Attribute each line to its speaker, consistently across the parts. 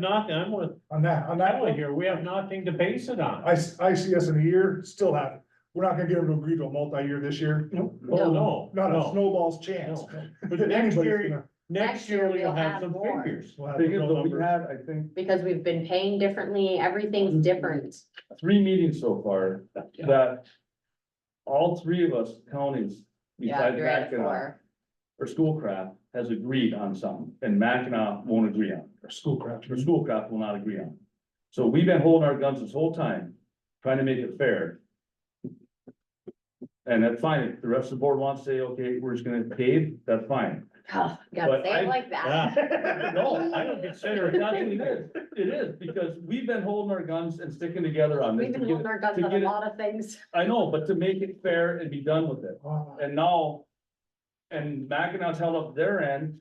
Speaker 1: nothing, I want,
Speaker 2: on that, on
Speaker 1: I
Speaker 2: that
Speaker 1: want
Speaker 2: one,
Speaker 1: here, we have nothing to base it on.
Speaker 2: I, s- I see us in a year, still have, we're not gonna get them to agree to a multi-year this year.
Speaker 1: Oh, no,
Speaker 2: Not a
Speaker 1: no,
Speaker 2: snowball's chance.
Speaker 1: no. But next
Speaker 2: Anybody's
Speaker 1: year,
Speaker 2: gonna-
Speaker 1: next year we'll have some
Speaker 3: more.
Speaker 1: figures.
Speaker 2: we'll have
Speaker 4: Thing is,
Speaker 2: no
Speaker 4: though, we
Speaker 2: numbers.
Speaker 4: had, I think,
Speaker 3: because we've been paying differently,
Speaker 4: Mm-hmm.
Speaker 3: everything's different.
Speaker 4: three meetings so far
Speaker 1: Yeah.
Speaker 4: that all three of us counties
Speaker 3: Yeah,
Speaker 4: besides
Speaker 3: you're at
Speaker 4: Mackinac
Speaker 3: four.
Speaker 4: or Schoolcraft has agreed on some and Mackinac won't agree on,
Speaker 2: Or Schoolcraft.
Speaker 4: or Schoolcraft will not agree on. So we've been holding our guns this whole time, trying to make it fair. And that's fine. If the rest of the board wants to say, okay, we're just gonna pave, that's fine.
Speaker 3: Oh, Gotta
Speaker 4: But
Speaker 3: say
Speaker 4: I-
Speaker 3: it like
Speaker 1: Yeah.
Speaker 3: that.
Speaker 4: No, I don't consider it, nothing it is, it is, because we've been holding our guns and sticking together on this.
Speaker 3: We've
Speaker 4: to
Speaker 3: been
Speaker 4: get it-
Speaker 3: holding our guns
Speaker 4: to
Speaker 3: on
Speaker 4: get
Speaker 3: a
Speaker 4: it-
Speaker 3: lot of things.
Speaker 4: I know, but to make it fair and be done with it,
Speaker 2: Ah,
Speaker 4: and now. And Mackinac's held up their end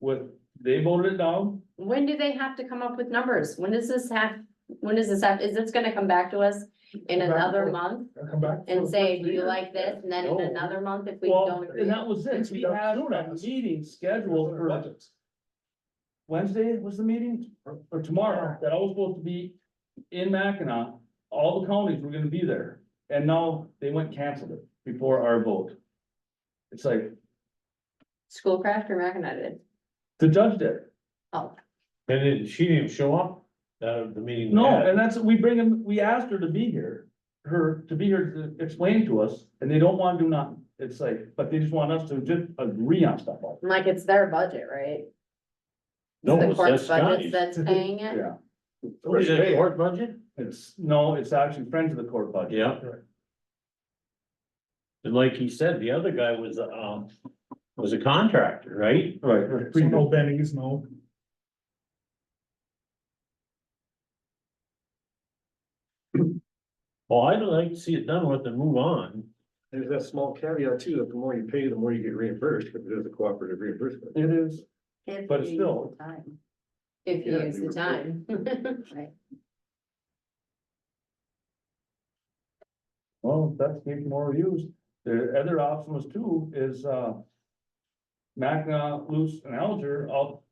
Speaker 4: with, they voted it down,
Speaker 3: When do they have to come up with numbers? When does this have, when does this have, is this gonna come back to us in
Speaker 2: Come back
Speaker 3: another
Speaker 2: with-
Speaker 3: month?
Speaker 2: I'll Come back. for
Speaker 3: And
Speaker 2: the
Speaker 3: say,
Speaker 2: first
Speaker 3: do you
Speaker 2: year.
Speaker 3: like this? And then
Speaker 4: No.
Speaker 3: in another month, if we
Speaker 4: well,
Speaker 3: don't agree.
Speaker 4: and that was it,
Speaker 2: It's
Speaker 4: we
Speaker 2: about
Speaker 4: had
Speaker 2: two
Speaker 4: a
Speaker 2: months.
Speaker 4: meeting scheduled for
Speaker 2: Budgets.
Speaker 4: Wednesday was the meeting, or- or tomorrow, that I was supposed to be. In Mackinac, all the counties were gonna be there, and now they went and canceled it before our vote. It's like,
Speaker 3: Schoolcraft or Mackinac did?
Speaker 4: the judge did,
Speaker 3: Oh,
Speaker 1: And then she didn't show up, that, the meeting. we
Speaker 4: No,
Speaker 1: had.
Speaker 4: and that's, we bring them, we asked her to be here, her, to be here to explain to us, and they don't wanna do nothing. It's like, but they just want us to just agree on stuff like,
Speaker 3: Like, it's their budget, right?
Speaker 1: No,
Speaker 3: The
Speaker 1: it's
Speaker 3: court's
Speaker 1: just
Speaker 3: budget
Speaker 1: Scotty's.
Speaker 3: that's paying it?
Speaker 4: yeah.
Speaker 1: What is it, court budget?
Speaker 4: It's, no, it's actually friends of the court budget.
Speaker 1: Yeah. And like he said, the other guy was, um, was a contractor, right?
Speaker 4: Right.
Speaker 2: Right, so no bennies, no.
Speaker 1: Well, I'd like to see it done with and move on.
Speaker 5: There's that small caveat too, that the more you pay, the more you get reimbursed, because there's a cooperative reimbursement.
Speaker 4: It is,
Speaker 3: If
Speaker 4: But it's
Speaker 3: you use
Speaker 4: still-
Speaker 3: the time. If you
Speaker 5: Yeah,
Speaker 3: use
Speaker 5: we
Speaker 3: the
Speaker 5: were-
Speaker 3: time. Right.
Speaker 4: well, that's getting more views. The other option was too, is, uh. Magna, Luce and Alger all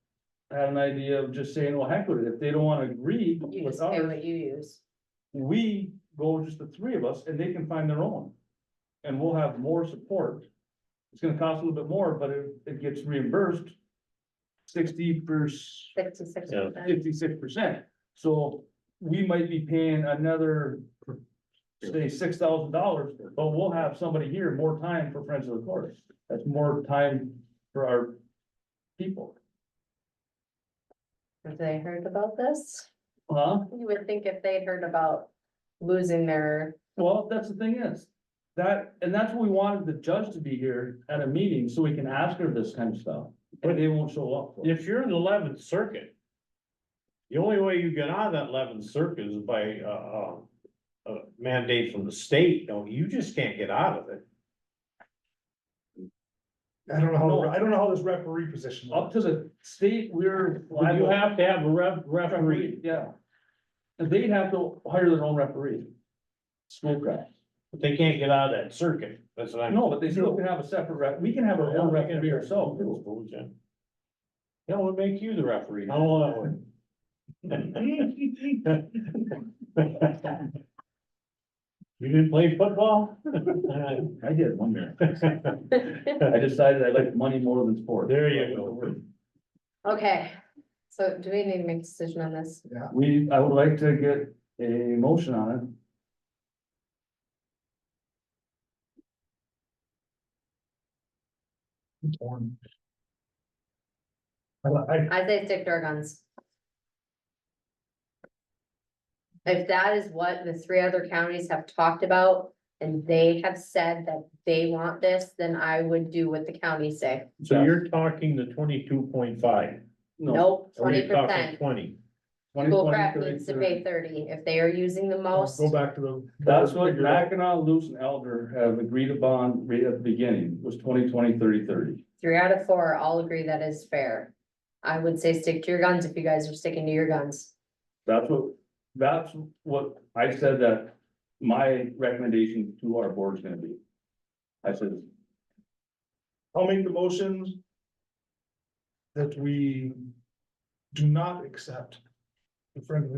Speaker 4: had an idea of just saying, well, heck with it, if they don't wanna agree
Speaker 3: You
Speaker 4: with
Speaker 3: just pay
Speaker 4: ours.
Speaker 3: what you use.
Speaker 4: we go just the three of us and they can find their own. And we'll have more support. It's gonna cost a little bit more, but it, it gets reimbursed. Sixty percent,
Speaker 3: Sixty-six
Speaker 1: Yeah.
Speaker 3: percent.
Speaker 4: fifty-six percent, so we might be paying another. Say six thousand dollars, but we'll have somebody here more time for Friends of the Forest, that's more time for our people,
Speaker 3: Have they heard about this?
Speaker 4: huh?
Speaker 3: You would think if they'd heard about losing their,
Speaker 4: Well, that's the thing is, that, and that's what we wanted the judge to be here at a meeting, so we can ask her this kind of stuff, but they won't show up. for it.
Speaker 1: If you're in the eleventh circuit. The only way you get out of that eleventh circuit is by, uh, uh, uh, mandate from the state, don't, you just can't get out of it.
Speaker 2: I don't know how,
Speaker 4: No.
Speaker 2: I don't know how this referee position. works.
Speaker 4: Up to the state, we're.
Speaker 1: But You have to have a ref, referee,
Speaker 4: Yeah. And they'd have to hire their own referee. Schoolcraft,
Speaker 1: but they can't get out of that circuit, that's what I know.
Speaker 4: no, but they still can have a separate ref, we can have our own referee ourselves, too.
Speaker 1: Yeah, we'll make you the referee, how long that would. You didn't play football?
Speaker 4: I did one year, I decided I liked money more than sport.
Speaker 1: There you go.
Speaker 3: okay. So do we need to make a decision on this?
Speaker 4: We, I would like to get a motion on it.
Speaker 2: Torn. I, li- I,
Speaker 3: I say stick to our guns. If that is what the three other counties have talked about, and they have said that they want this, then I would do what the counties say.
Speaker 1: So you're talking the twenty-two point five,
Speaker 3: Nope,
Speaker 1: or
Speaker 3: twenty
Speaker 1: you're talking
Speaker 3: percent.
Speaker 1: twenty?
Speaker 3: Schoolcraft needs to pay thirty. If they are using the most,
Speaker 2: go back to the.
Speaker 4: That's what
Speaker 2: figure out.
Speaker 4: Mackinac, Luce and Elder have agreed upon right at the beginning, was 20, 20, 30, 30.
Speaker 3: three out of four all agree that is fair. I would say stick to your guns if you guys are sticking to your guns.
Speaker 4: That's what, that's what I said that my recommendation to our board is gonna be. I said,
Speaker 2: I'll make the motion. That we do not accept the friend of the